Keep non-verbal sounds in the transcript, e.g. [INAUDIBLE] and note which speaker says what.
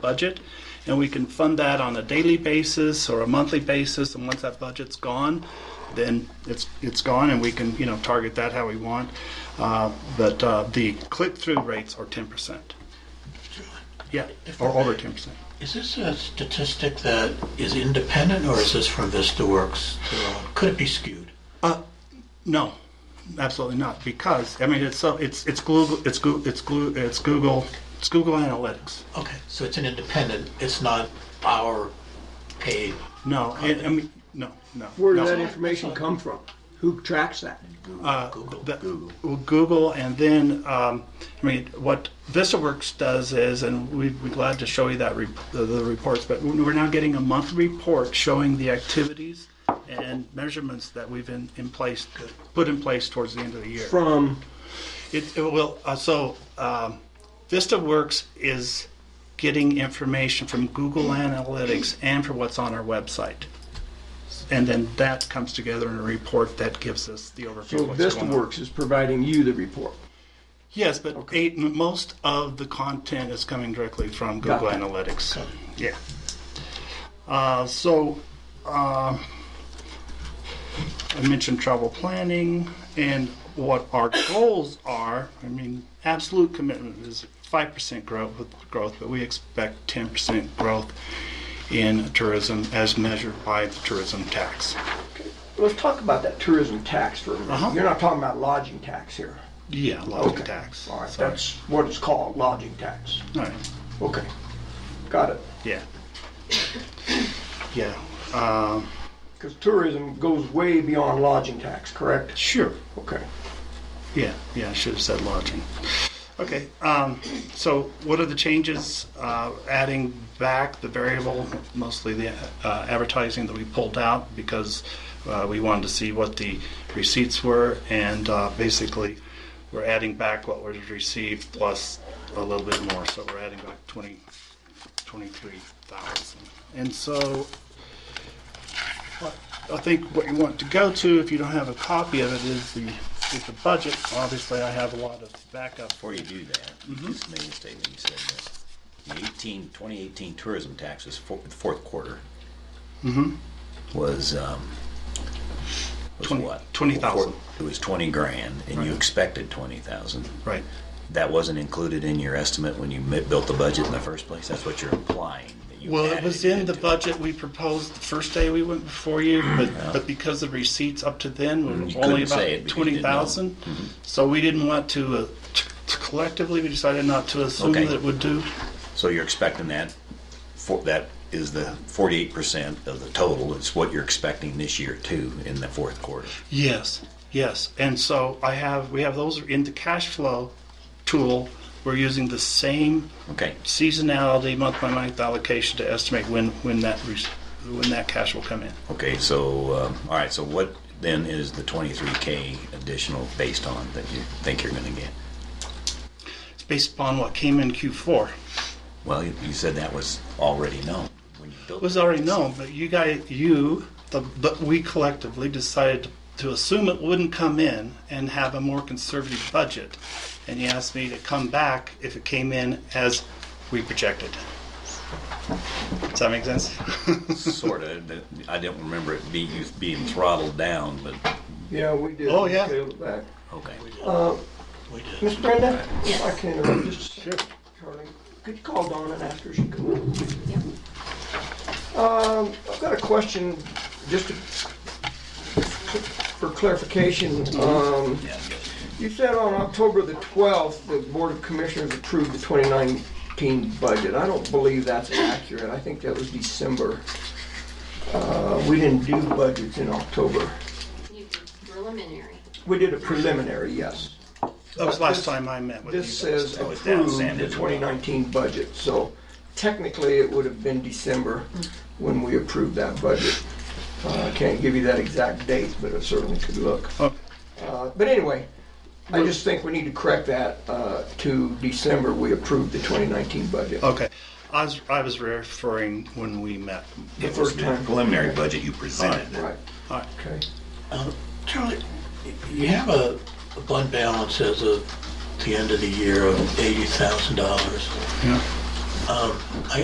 Speaker 1: budget, and we can fund that on a daily basis or a monthly basis, and once that budget's gone, then it's, it's gone, and we can, you know, target that how we want. Uh, But uh, the click-through rates are 10%. Yeah, or over 10%.
Speaker 2: Is this a statistic that is independent, or is this from VistaWorks? Could it be skewed?
Speaker 1: Uh, No, absolutely not, because, I mean, it's so, it's, it's Google, it's Google, it's Glu- it's Google, it's Google Analytics.
Speaker 2: Okay, so it's an independent, it's not our paid.
Speaker 1: No, I I mean, no, no.
Speaker 3: Where
Speaker 1: no.
Speaker 3: did that information come from? Who tracks that?
Speaker 1: Uh,
Speaker 2: Google.
Speaker 1: the- well, Google, and then, um, I mean, what VistaWorks does is, and we'd be glad to show you that, rep- the the reports, but we're now getting a monthly report showing the activities and measurements that we've in, in place, put in place towards the end of the year.
Speaker 3: From,
Speaker 1: It, it will, uh, so, um, VistaWorks is getting information from Google Analytics and from what's on our website. And then that comes together in a report that gives us the overview
Speaker 3: so
Speaker 1: of what's going on.
Speaker 3: VistaWorks is providing you the report.
Speaker 1: Yes, but eight, m- most of the content is coming directly from Google
Speaker 3: Got it.
Speaker 1: Analytics.
Speaker 2: Got it.
Speaker 1: Yeah. Uh, so um I mentioned travel planning and what our goals are. I mean, absolute commitment is five percent growth, growth, but we expect ten percent growth in tourism as measured by the tourism tax.
Speaker 3: Let's talk about that tourism tax for a
Speaker 1: Uh-huh.
Speaker 3: minute. You're not talking about lodging tax here.
Speaker 1: Yeah, lodging
Speaker 3: Okay.
Speaker 1: tax.
Speaker 3: All right,
Speaker 1: Sorry.
Speaker 3: that's what it's called, lodging tax.
Speaker 1: All right.
Speaker 3: Okay, got it.
Speaker 1: [LAUGHS] Yeah. Yeah. Um,
Speaker 3: Because tourism goes way beyond lodging tax, correct?
Speaker 1: sure.
Speaker 3: Okay.
Speaker 1: Yeah, yeah, I should have said lodging. Okay, um, so what are the changes? Uh, adding back the variable, mostly the uh, advertising that we pulled out because uh, we wanted to see what the receipts were, and uh, basically we're adding back what was received plus a little bit more. So we're adding back 20, 23,000. And so I think what you want to go to, if you don't have a copy of it, is the, is the budget. Obviously, I have a lot of backup for
Speaker 4: Before you do that,
Speaker 1: Mm-hmm.
Speaker 4: just make a statement, you said that the 18, 2018 tourism taxes, for- the fourth quarter,
Speaker 1: Mm-hmm.
Speaker 4: was, um, was
Speaker 1: Twenty-
Speaker 4: what?
Speaker 1: 20,000.
Speaker 4: It was 20 grand, and you
Speaker 1: Right.
Speaker 4: expected 20,000.
Speaker 1: Right.
Speaker 4: That wasn't included in your estimate when you mi- built the budget in the first place? That's what you're implying, that you
Speaker 1: Well, it
Speaker 4: added
Speaker 1: was in the
Speaker 4: into it.
Speaker 1: budget we proposed the first day we went before you, but, but because the receipts up to then
Speaker 4: you
Speaker 1: were
Speaker 4: couldn't
Speaker 1: only
Speaker 4: say it
Speaker 1: about
Speaker 4: because you didn't know. Mm-hmm.
Speaker 1: 20,000. So we didn't want to, uh, t- t- collectively, we decided not to assume
Speaker 4: Okay.
Speaker 1: that it would do.
Speaker 4: So you're expecting that, for, that is the 48% of the total, it's what you're expecting this year too, in the fourth quarter.
Speaker 1: Yes, yes. And so I have, we have those in the cash flow tool. We're using the same
Speaker 4: Okay,
Speaker 1: seasonality, month-by-month allocation to estimate when, when that, re- when that cash will come in.
Speaker 4: Okay, so, um, all right, so what then is the 23K additional based on that you think you're going to get?
Speaker 1: It's based upon what came in Q4.
Speaker 4: Well, you, you said that was already known when you built
Speaker 1: It was already known, but you guys, you, the, but we collectively decided to assume it wouldn't come in and have a more conservative budget. And you asked me to come back if it came in as we projected. Does that make sense? [LAUGHS]
Speaker 4: Sort of. I don't remember it being, you being throttled down, but
Speaker 3: Yeah, we did.
Speaker 1: Oh, yeah.
Speaker 3: Scaled it back.
Speaker 4: okay.
Speaker 2: We did.
Speaker 3: Miss Brenda? Yes. I can interrupt just a second, Charlie. Could you call Donna and ask her if she can? Um, I've got a question, just to- for clarification. Um, You said on October the 12th, the Board of Commissioners approved the 2019 budget. I don't believe that's accurate. I think that was December. Uh, We didn't do budgets in October.
Speaker 5: You did preliminary.
Speaker 3: We did a preliminary, yes.
Speaker 1: That was last time I met with you.
Speaker 3: This says
Speaker 4: Oh, it's down,
Speaker 3: approved
Speaker 4: Sam,
Speaker 3: the
Speaker 4: as well.
Speaker 3: 2019 budget, so technically it would have been December when we approved that budget. Uh, I can't give you that exact date, but it certainly could look.
Speaker 1: Okay.
Speaker 3: Uh, But anyway, I just think we need to correct that uh, to December, we approved the 2019 budget.
Speaker 4: Uh,
Speaker 1: Okay, I was, I was referring when we met.
Speaker 3: The
Speaker 4: It was
Speaker 3: first
Speaker 4: the
Speaker 3: time.
Speaker 4: preliminary budget you presented.
Speaker 3: Right,
Speaker 1: All right.
Speaker 3: okay.
Speaker 2: Um, Charlie, you have a a fund balance as of the end of the year of $80,000.
Speaker 1: Yeah.
Speaker 2: Um, I